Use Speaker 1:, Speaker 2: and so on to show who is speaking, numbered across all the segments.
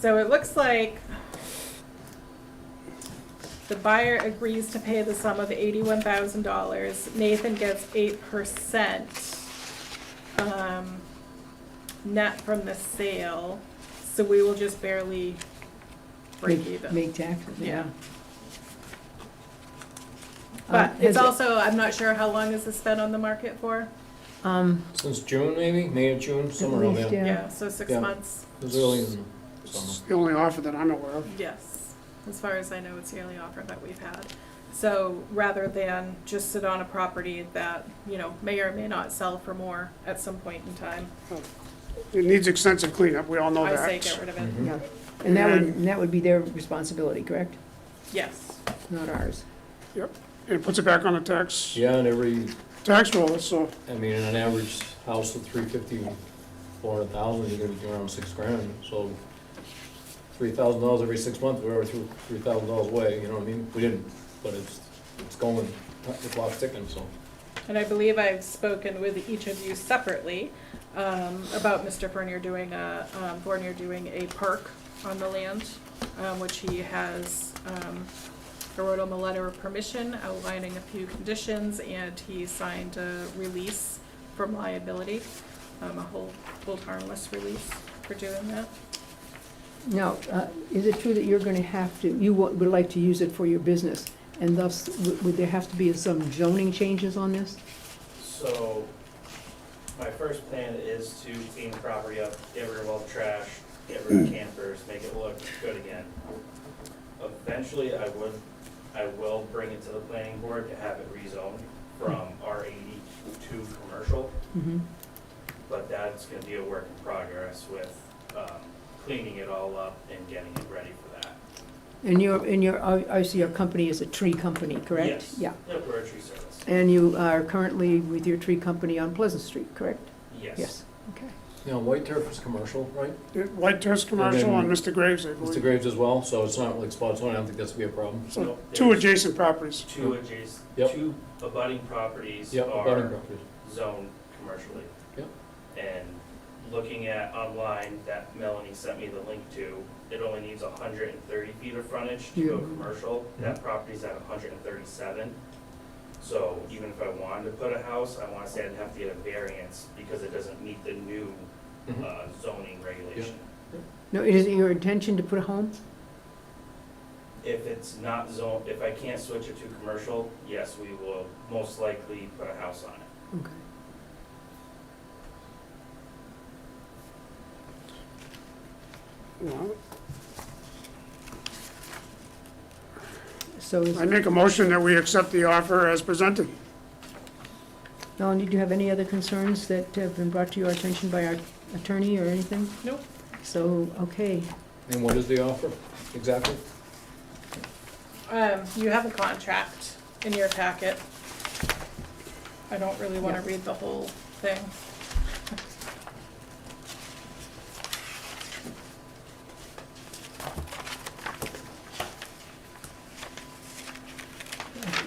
Speaker 1: So it looks like the buyer agrees to pay the sum of eighty-one thousand dollars. Nathan gets eight percent um, net from the sale, so we will just barely break
Speaker 2: Make-
Speaker 1: even.
Speaker 2: Make taxes, yeah.
Speaker 1: Yeah.
Speaker 2: Um,
Speaker 1: But
Speaker 2: has
Speaker 1: it's
Speaker 2: it-
Speaker 1: also, I'm not sure how long this has been on the market for.
Speaker 2: Um,
Speaker 3: Since June, maybe, May or June, somewhere around
Speaker 2: least,
Speaker 3: there.
Speaker 2: Yeah.
Speaker 1: Yeah, so six
Speaker 3: Yeah.
Speaker 1: months,
Speaker 3: It was early in the
Speaker 4: It's
Speaker 3: summer.
Speaker 4: the only offer that I'm aware of.
Speaker 1: yes. As far as I know, it's the only offer that we've had. So rather than just sit on a property that, you know, may or may not sell for more at some point in time,
Speaker 4: It needs extensive cleanup, we all know
Speaker 1: I
Speaker 4: that.
Speaker 1: say get rid of it.
Speaker 3: Mhm.
Speaker 2: yeah, and that would,
Speaker 4: And-
Speaker 2: and that would be their responsibility, correct?
Speaker 1: Yes,
Speaker 2: Not ours.
Speaker 4: It puts it back on the tax,
Speaker 3: Yeah, and every,
Speaker 4: tax roll, so
Speaker 3: I mean, on an average house of three fifty, four hundred thousand, you're gonna be around six grand, so three thousand dollars every six months, we're through three thousand dollars away, you know what I mean? We didn't, but it's, it's going, the clock's ticking, so.
Speaker 1: and I believe I've spoken with each of you separately um, about Mr. Fournier doing a, um, Fournier doing a park on the land, um, which he has, um, I wrote him a letter of permission outlining a few conditions, and he signed a release from liability, um, a whole, hold harmless release for doing that.
Speaker 2: Now, uh, is it true that you're gonna have to, you wa- would like to use it for your business? And thus, w- would there have to be some zoning changes on this?
Speaker 5: So, my first plan is to clean the property up, get rid of all the trash, get rid of campers, make it look good again. Eventually, I would, I will bring it to the planning board to have it rezoned from R eighty to commercial,
Speaker 2: Mhm.
Speaker 5: but that's gonna be a work in progress with, um, cleaning it all up and getting it ready for that.
Speaker 2: And your, and your, I I see your company is a tree company, correct?
Speaker 5: Yes.
Speaker 2: Yeah,
Speaker 5: Yep, we're a tree service.
Speaker 2: and you are currently with your tree company on Pleasant Street, correct?
Speaker 5: Yes.
Speaker 2: Okay.
Speaker 3: You know, White Turf is commercial, right?
Speaker 4: it- White Turf Commercial
Speaker 3: And
Speaker 4: on
Speaker 3: then-
Speaker 4: Mr. Graves, I
Speaker 3: It's the
Speaker 4: believe.
Speaker 3: Graves as well, so it's not like spot on, I don't think that's gonna be a problem.
Speaker 4: So,
Speaker 5: No,
Speaker 4: two
Speaker 5: there's
Speaker 4: adjacent properties.
Speaker 5: Two adjacent,
Speaker 3: Yep.
Speaker 5: two abutting properties
Speaker 3: Yeah,
Speaker 5: are
Speaker 3: abutting properties.
Speaker 5: zone commercially.
Speaker 3: Yep.
Speaker 5: And looking at online, that Melanie sent me the link to, it only needs hundred and thirty feet of frontage to go
Speaker 2: Yeah.
Speaker 5: commercial. That property's at hundred and thirty-seven. So even if I wanted to put a house, I wanna say I'd have to get a variance because it doesn't meet the new
Speaker 3: Mhm.
Speaker 5: uh, zoning regulation.
Speaker 2: No, is it your intention to put a home?
Speaker 5: If it's not zone, if I can't switch it to commercial, yes, we will most likely put a house on it.
Speaker 2: Okay.
Speaker 4: Well,
Speaker 2: So, is-
Speaker 4: I make a motion that we accept the offer as presented.
Speaker 2: Melanie, do you have any other concerns that have been brought to your attention by our attorney or anything?
Speaker 1: Nope.
Speaker 2: So, okay,
Speaker 3: And what is the offer, exactly?
Speaker 1: Um, you have a contract in your packet. I don't really wanna
Speaker 2: Yeah.
Speaker 1: read the whole thing.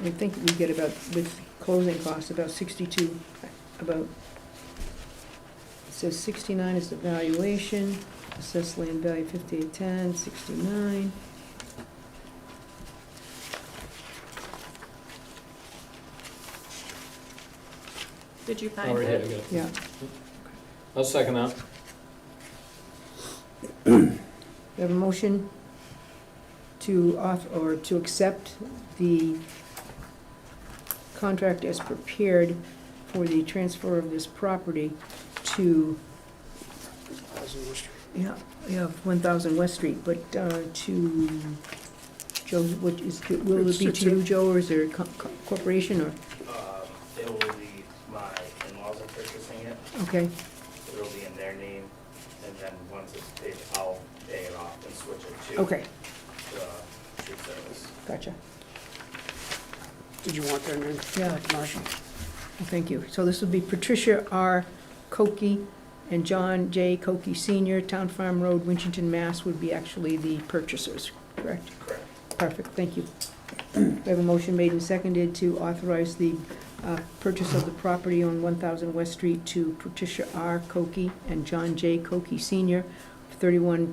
Speaker 2: I think we get about, with closing costs, about sixty-two, about, it says sixty-nine is the valuation, assessed land value fifty-eight ten, sixty-nine.
Speaker 1: Did you
Speaker 3: Oh,
Speaker 1: find
Speaker 3: right here, I
Speaker 1: it?
Speaker 3: got it.
Speaker 2: Yeah,
Speaker 3: I'll second that.
Speaker 2: we have a motion to off, or to accept the contract as prepared for the transfer of this property to Yeah, yeah, one thousand West Street, but uh, to, Joe, what is, will it be
Speaker 4: It's-
Speaker 2: to you, Joe, or is there a co- co- corporation, or,
Speaker 5: Um, It will be my in-laws are purchasing it.
Speaker 2: okay,
Speaker 5: It'll be in their name, and then once it's paid, I'll pay it off and switch it to.
Speaker 2: okay,
Speaker 5: The tree service.
Speaker 2: gotcha.
Speaker 4: Did you want that name?
Speaker 2: Yeah.
Speaker 4: Marshall.
Speaker 2: Well, Thank you. So this would be Patricia R. Cokie and John J. Cokie Senior, Town Farm Road, Winchton, Mass. would be actually the purchasers, correct?
Speaker 5: Correct.
Speaker 2: Perfect, thank you. We have a motion made and seconded to authorize the uh, purchase of the property on 1,000 West Street to Patricia R. Cokie and John J. Cokie Senior, 31